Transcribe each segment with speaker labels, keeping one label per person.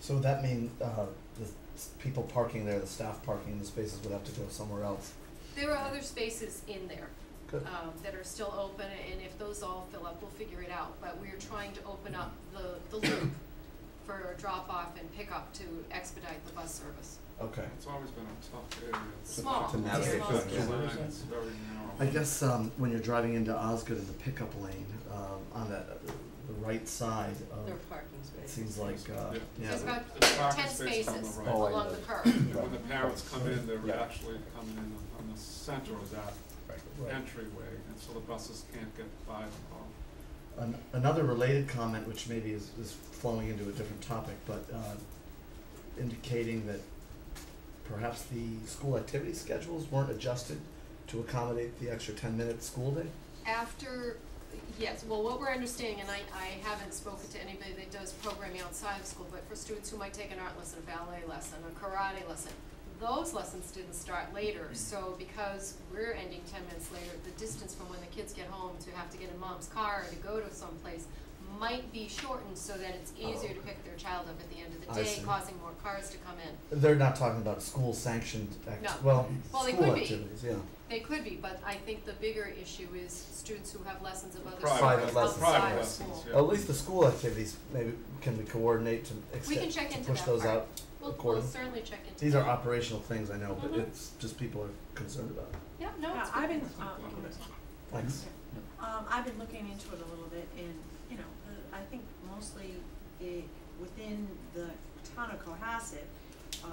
Speaker 1: So would that mean, uh, the s- people parking there, the staff parking in the spaces would have to go somewhere else?
Speaker 2: There are other spaces in there
Speaker 1: Good.
Speaker 2: um, that are still open, and if those all fill up, we'll figure it out. But we're trying to open up the, the loop for drop-off and pickup to expedite the bus service.
Speaker 1: Okay.
Speaker 3: It's always been a tough area.
Speaker 2: Small,
Speaker 1: To
Speaker 2: it's
Speaker 1: navigate
Speaker 2: small.
Speaker 1: through.
Speaker 3: Design, it's very narrow.
Speaker 1: I guess um, when you're driving into Osgood in the pickup lane, um, on that, the right side
Speaker 4: Their
Speaker 1: of,
Speaker 4: parking
Speaker 1: it
Speaker 4: spaces.
Speaker 1: seems like, uh,
Speaker 3: Yeah.
Speaker 1: yeah.
Speaker 2: There's about
Speaker 3: There's parking
Speaker 2: ten
Speaker 3: space on the
Speaker 2: spaces
Speaker 3: right.
Speaker 5: Oh, I
Speaker 2: along
Speaker 5: know.
Speaker 2: the curb.
Speaker 3: And When the parents come in, they're
Speaker 5: Yeah.
Speaker 3: actually coming in on- on the center of that
Speaker 1: Right.
Speaker 3: entryway, and so the buses can't get by them all.
Speaker 1: An- another related comment, which maybe is, is flowing into a different topic, but uh, indicating that perhaps the school activity schedules weren't adjusted to accommodate the extra ten-minute school day?
Speaker 2: After, yes, well, what we're understanding, and I, I haven't spoken to anybody that does programming outside of school, but for students who might take an art lesson, a ballet lesson, a karate lesson, those lessons didn't start later, so because we're ending ten minutes later, the distance from when the kids get home to have to get in mom's car to go to someplace might be shortened so that it's
Speaker 1: Oh,
Speaker 2: easier to
Speaker 1: okay.
Speaker 2: pick their child up at the end of
Speaker 1: I
Speaker 2: the day,
Speaker 1: see.
Speaker 2: causing more cars to come in.
Speaker 1: They're not talking about school sanctioned act-
Speaker 2: No.
Speaker 1: well,
Speaker 2: Well, they
Speaker 1: school
Speaker 2: could be.
Speaker 1: activities, yeah.
Speaker 2: They could be, but I think the bigger issue is students who have lessons of other
Speaker 3: Private
Speaker 2: sorts
Speaker 1: lessons.
Speaker 2: outside
Speaker 3: Private
Speaker 2: of
Speaker 3: lessons,
Speaker 2: school.
Speaker 3: yeah.
Speaker 1: At least the school activities, maybe, can we coordinate to
Speaker 2: We can
Speaker 1: extend,
Speaker 2: check
Speaker 1: to
Speaker 2: into
Speaker 1: push
Speaker 2: that
Speaker 1: those
Speaker 2: part.
Speaker 1: out?
Speaker 2: We'll, we'll
Speaker 1: according-
Speaker 2: certainly check into
Speaker 1: These are
Speaker 2: that.
Speaker 1: operational things, I know, but
Speaker 2: Mhm.
Speaker 1: it's just people are concerned about. it.
Speaker 2: Yeah, no,
Speaker 6: Yeah,
Speaker 2: it's
Speaker 6: I've been,
Speaker 3: It's
Speaker 6: um,
Speaker 3: like one of those.
Speaker 1: Thanks.
Speaker 6: um, I've been looking into it a little bit and, you know, uh, I think mostly it, within the town of Cohasset, uh,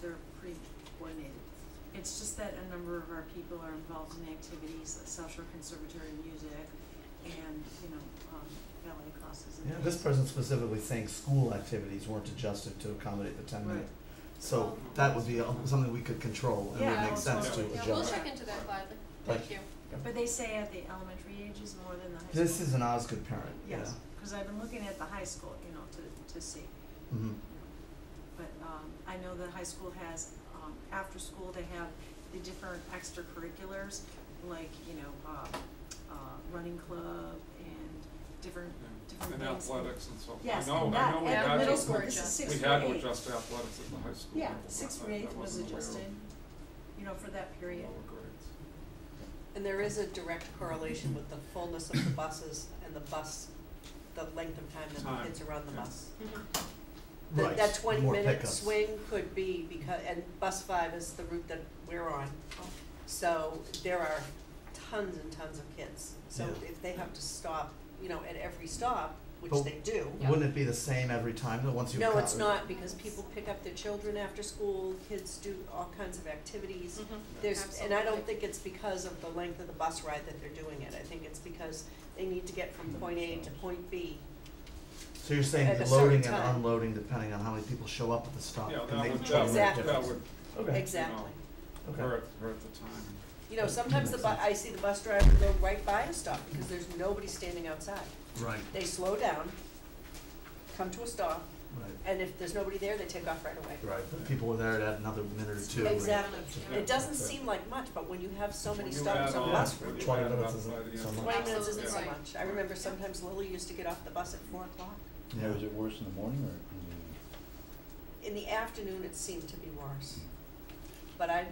Speaker 6: they're pretty coordinated. It's just that a number of our people are involved in activities, like social conservatory music and, you know, um, ballet classes and
Speaker 1: Yeah,
Speaker 6: things.
Speaker 1: this person specifically saying school activities weren't adjusted to accommodate the ten minute.
Speaker 6: Right.
Speaker 1: So that would be uh, something we could control and would
Speaker 6: Yeah,
Speaker 1: make sense to
Speaker 6: absolutely.
Speaker 2: Yeah,
Speaker 1: adjust.
Speaker 2: we'll check into that gladly. Thank
Speaker 1: Thank
Speaker 2: you.
Speaker 6: But they say at the elementary ages more than the high school.
Speaker 1: This is an Osgood parent, yeah.
Speaker 6: Yes, cause I've been looking at the high school, you know, to, to see.
Speaker 1: hmm
Speaker 6: But um, I know the high school has, um, after school, they have the different extracurriculars, like, you know, uh, uh, running club and different,
Speaker 3: Yeah.
Speaker 6: different
Speaker 3: And
Speaker 6: things.
Speaker 3: athletics and so forth.
Speaker 6: Yes,
Speaker 3: I know,
Speaker 6: and
Speaker 3: I
Speaker 6: that,
Speaker 3: know we
Speaker 6: and
Speaker 3: had
Speaker 6: middle
Speaker 3: to-
Speaker 6: school,
Speaker 2: were
Speaker 6: this is
Speaker 2: adjusted.
Speaker 6: six
Speaker 3: We
Speaker 6: through eight.
Speaker 3: had to adjust athletics at the high school.
Speaker 6: Yeah,
Speaker 3: level, but
Speaker 6: sixth
Speaker 3: I-
Speaker 6: through
Speaker 3: I
Speaker 6: eighth was
Speaker 3: wasn't aware of
Speaker 6: adjusted, you know, for that period.
Speaker 3: lower grades.
Speaker 4: And there is a direct correlation with the fullness of the buses and the bus, the length of time that
Speaker 3: Time,
Speaker 4: the kids are on the
Speaker 3: yeah.
Speaker 4: bus. The-
Speaker 1: Right,
Speaker 4: That twenty
Speaker 1: more
Speaker 4: minute
Speaker 1: pickups.
Speaker 4: swing could be because, and bus five is the route that we're on. So there are tons and tons of kids. So
Speaker 1: Yeah.
Speaker 4: if they have to stop, you know, at every stop, which
Speaker 1: But
Speaker 4: they do.
Speaker 1: Wouldn't it be the same every time though, once you've
Speaker 4: No,
Speaker 1: got-
Speaker 4: it's not because people pick up their children after school, kids do all kinds of activities.
Speaker 2: Mm-hmm.
Speaker 4: There's, and I don't think it's because of the length of the bus ride that they're doing it, I think it's because they need to get from point A to point B.
Speaker 1: So you're saying
Speaker 4: at
Speaker 1: the
Speaker 4: a
Speaker 1: loading and
Speaker 4: certain time.
Speaker 1: unloading depending on how many people show up at the stop
Speaker 3: Yeah,
Speaker 1: can
Speaker 3: that
Speaker 1: make a
Speaker 3: would,
Speaker 1: twenty
Speaker 3: that would,
Speaker 1: minute
Speaker 4: Exactly.
Speaker 3: that
Speaker 1: difference.
Speaker 3: would
Speaker 1: Okay.
Speaker 4: Exactly.
Speaker 1: Okay.
Speaker 3: hurt, hurt the time.
Speaker 4: You know, sometimes the bu, I see the bus driver go right by a stop because there's nobody standing outside.
Speaker 1: Right,
Speaker 4: They slow down, come to a stop,
Speaker 1: right,
Speaker 4: and if there's nobody there, they take off right away.
Speaker 1: right. But people were there at another minute or two. and-
Speaker 4: Exactly.
Speaker 3: Yeah.
Speaker 4: It doesn't seem like much, but when you have so many
Speaker 3: When you
Speaker 4: stops
Speaker 3: add
Speaker 4: on
Speaker 3: on-
Speaker 4: a bus
Speaker 3: when
Speaker 4: route,
Speaker 3: you
Speaker 1: 20
Speaker 3: add
Speaker 1: minutes
Speaker 3: up
Speaker 1: isn't
Speaker 3: by the end
Speaker 1: so
Speaker 3: of
Speaker 1: much.
Speaker 4: twenty minutes isn't so
Speaker 2: Absolutely right.
Speaker 4: much. I remember sometimes Lily used to get off the bus at four o'clock.
Speaker 1: Yeah.
Speaker 5: Now, is it worse in the morning or in the evening?
Speaker 4: In the afternoon, it seemed to be worse. But I,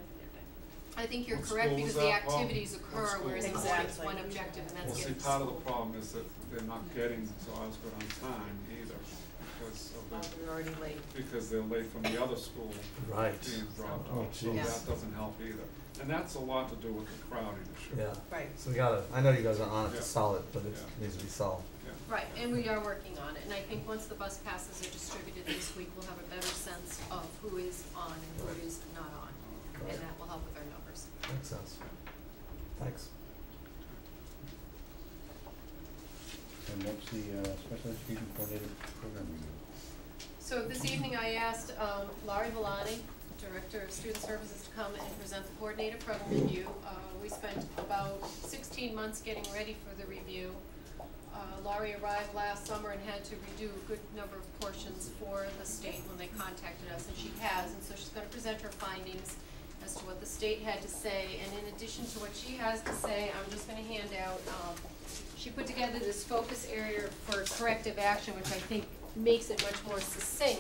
Speaker 2: I think you're
Speaker 3: What
Speaker 2: correct
Speaker 3: school
Speaker 2: because
Speaker 3: was
Speaker 2: the
Speaker 3: that? Well,
Speaker 2: activities
Speaker 3: what
Speaker 2: occur,
Speaker 3: school
Speaker 2: whereas in the
Speaker 4: was
Speaker 2: morning
Speaker 4: that?
Speaker 2: it's one objective and
Speaker 3: Well,
Speaker 2: that's
Speaker 3: see,
Speaker 2: getting to
Speaker 3: part of
Speaker 2: school.
Speaker 3: the problem is that they're not getting to Osgood on time either, because
Speaker 4: well,
Speaker 3: of
Speaker 4: we were already late.
Speaker 3: the, because they're late from the other school
Speaker 1: Right.
Speaker 3: being dropped
Speaker 1: Oh,
Speaker 3: off, so
Speaker 1: jeez.
Speaker 3: that doesn't help either. And that's a lot to do with the crowding issue.
Speaker 1: Yeah.
Speaker 4: Right.
Speaker 1: So we gotta, I know you guys are on it
Speaker 3: Yeah.
Speaker 1: to solve it, but it
Speaker 3: Yeah.
Speaker 1: needs to be solved.
Speaker 3: Yeah.
Speaker 2: Right, and we are working on it, and I think once the bus passes are distributed this week, we'll have a better sense of who is on and
Speaker 1: Right.
Speaker 2: who is not on.
Speaker 3: Uh,
Speaker 1: Right.
Speaker 2: And that will help with our numbers.
Speaker 1: Makes sense. Thanks.
Speaker 5: And what's the uh, special education coordinator program review?
Speaker 2: So this evening I asked um, Laurie Valani, Director of Student Services, to come and present the coordinator program review. Uh, We spent about sixteen months getting ready for the review. Uh, Laurie arrived last summer and had to redo a good number of portions for the state when they contacted us, and she has. And so she's gonna present her findings as to what the state had to say. And in addition to what she has to say, I'm just gonna hand out, um, she put together this focus area for corrective action, which I think makes it much more succinct